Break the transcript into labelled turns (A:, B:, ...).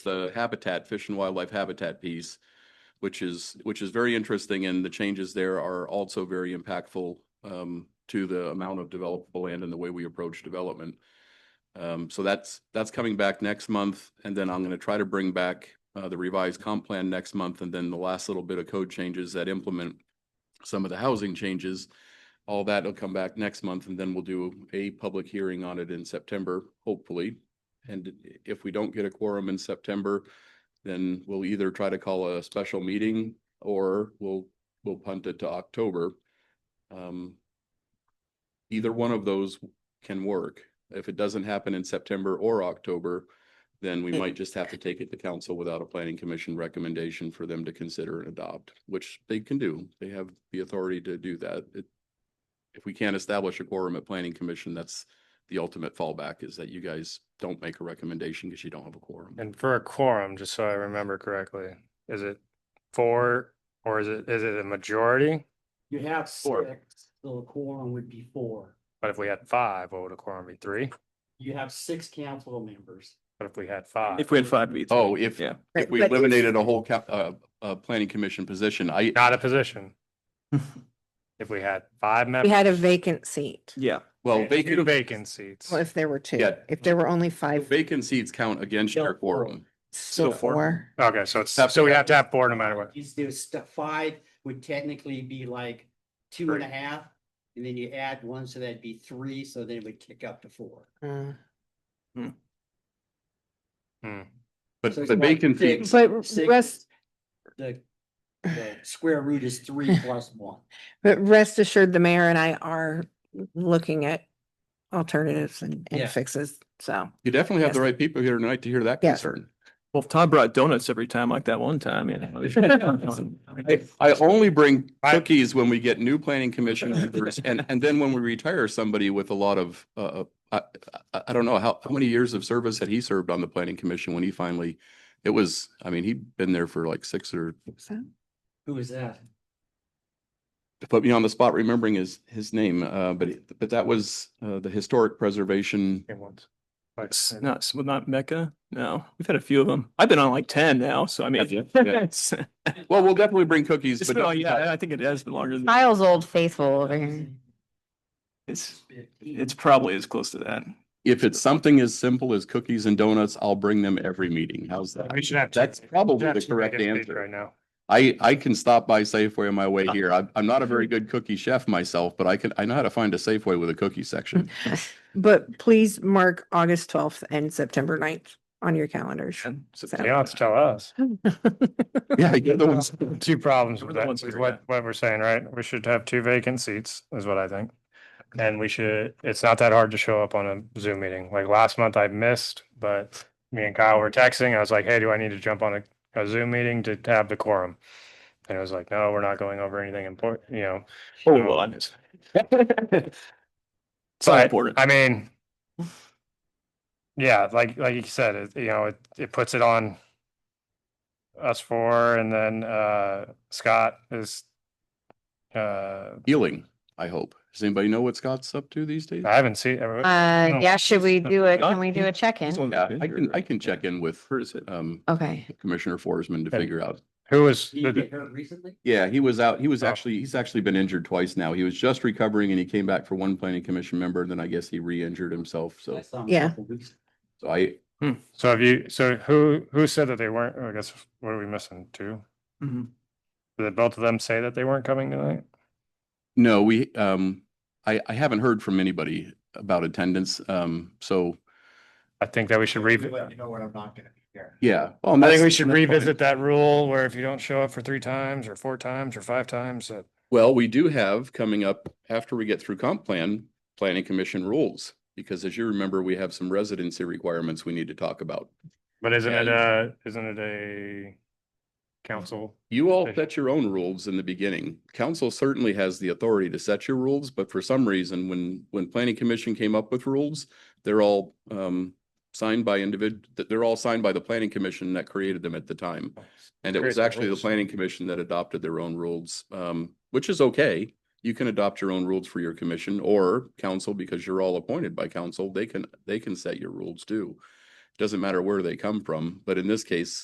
A: the habitat, fish and wildlife habitat piece, which is, which is very interesting, and the changes there are also very impactful um, to the amount of developable land and the way we approach development. Um, so that's, that's coming back next month, and then I'm gonna try to bring back uh, the revised comp plan next month, and then the last little bit of code changes that implement some of the housing changes. All that will come back next month, and then we'll do a public hearing on it in September, hopefully. And if we don't get a quorum in September, then we'll either try to call a special meeting or we'll, we'll punt it to October. Um, Either one of those can work. If it doesn't happen in September or October, then we might just have to take it to council without a planning commission recommendation for them to consider and adopt, which they can do. They have the authority to do that. It- If we can't establish a quorum at planning commission, that's the ultimate fallback is that you guys don't make a recommendation because you don't have a quorum.
B: And for a quorum, just so I remember correctly, is it four or is it, is it a majority?
C: You have
D: Four.
C: six, so the quorum would be four.
B: But if we had five, what would a quorum be? Three?
C: You have six council members.
B: But if we had five?
D: If we had five V.
A: Oh, if,
D: Yeah.
A: if
E: Right,
A: we
E: but if-
A: eliminated a whole cap, uh, uh, planning commission position, I,
B: Not a position. If we had five
E: We
B: members.
E: had a vacant seat.
D: Yeah,
A: well,
B: Two
A: vacant,
B: vacant seats.
E: Well, if there were two,
A: Yeah.
E: if there were only five,
A: vacant seats count against your quorum.
E: still
D: still four.
E: four.
B: Okay, so it's,
A: Have-
B: so we have to have four no matter what.
C: These, there's st- five would technically be like two and a half. And then you add one, so that'd be three, so then it would kick up to four.
E: Mm.
B: Hmm.
A: But
C: So it's
A: the
C: about
A: vacant
C: six-
A: seats,
E: But rest-
C: Six, the, the square root is three plus one.
E: But rest assured, the mayor and I are looking at alternatives and,
C: Yeah.
E: and fixes, so.
A: you definitely have the
E: Yes.
A: right people here tonight to hear that
E: Yes.
A: concern.
D: well, if Todd brought donuts every time like that one time, you know.
A: I, I only bring
B: I-
A: cookies when we get new planning commission members and, and then when we retire somebody with a lot of, uh, I, I, I don't know how, how many years of service had he served on the planning commission when he finally, it was, I mean, he'd been there for like six or,
E: so-
C: Who is that?
A: put me on the spot remembering his, his name, uh, but, it- but that was, uh, the historic preservation.
B: Okay, once. Like,
D: It's Not, s- well, not Mecca. No, we've had a few of them. I've been on like ten now, so I mean.
A: Have you? Yeah.
D: it's-
A: Well, we'll definitely bring cookies,
D: it's
A: but
D: been- oh,
A: don't-
D: Yeah, I think it has been longer than,
E: Kyle's old faithful over here.
D: it's, it's probably as close to that.
A: if it's something as simple as cookies and donuts, I'll bring them every meeting. How's that?
B: We should have. two-
A: That's
B: we should
A: probably
B: have
A: the
B: two
A: correct
B: vacant seats
A: answer.
B: Right now.
A: I, I can stop by Safeway on my way here. I'm, I'm not a very good cookie chef myself, but I can, I know how to find a Safeway with a cookie section.
E: But please mark August twelfth and September 9th on your calendars.
D: And so-
E: So-
B: You don't have to tell us.
A: Yeah, you're the ones.
B: Two problems with
D: We're the
B: that,
D: ones
B: with
D: that are
B: what, what we're saying, right? We should have two vacant seats, is what I think. And we should, it's not that hard to show up on a Zoom meeting. Like last month I missed, but me and Kyle were texting. I was like, hey, do I need to jump on a, a Zoom meeting to have the quorum? And it was like, no, we're not going over anything important, you know.
D: Oh, well, I missed. It's not
B: But,
D: important.
B: I mean, yeah, like, like you said, it, you know, it, it puts it on us four and then, uh, Scott is, uh,
A: Healing, I hope. Does anybody know what Scott's up to these days?
B: I haven't seen, I
F: Uh,
B: No.
F: yeah, should we do it? Can we do a
D: It's
F: check-in?
D: one
A: Yeah,
D: of the
A: I can, I
D: bigger-
A: can check in with,
D: Where is it?
A: um,
F: Okay,
A: Commissioner Forsman to
B: And-
A: figure out.
B: Who was,
C: Did you get hurt recently?
A: Yeah, he was out, he was
B: Oh.
A: actually, he's actually been injured twice now. He was just recovering and he came back for one planning commission member, and then I guess he re-injured himself, so,
C: I saw him a
E: Yeah.
C: couple weeks-
A: so I,
B: so have you, so who, who said that they weren't, I guess, what are we missing? Two?
A: Mm-hmm.
D: Mhm.
B: Did both of them say that they weren't coming tonight?
A: No, we, um, I, I haven't heard from anybody about attendance. Um, so,
B: I think that we should
C: Let
B: revisit.
C: you know when I'm not gonna be here.
A: yeah. I
B: I think we should revisit that rule where if you don't show up for three times or four times or five times, that
A: Well, we do have coming up after we get through comp plan, planning commission rules. Because as you remember, we have some residency requirements we need to talk about.
B: But isn't
A: Yeah,
B: it
A: you-
B: a, isn't it a council?
A: You all
B: Okay.
A: set your own rules in the beginning. Council certainly has the authority to set your rules, but for some reason, when, when planning commission came up with rules, they're all, um, signed by individ, that they're all signed by the planning commission that created them at the time. And it
B: Create
A: was
B: the
A: actually the
B: rules.
A: planning commission that adopted their own rules, um, which is okay. You can adopt your own rules for your commission or council because you're all appointed by council. They can, they can set your rules too. Doesn't matter where they come from, but in this case,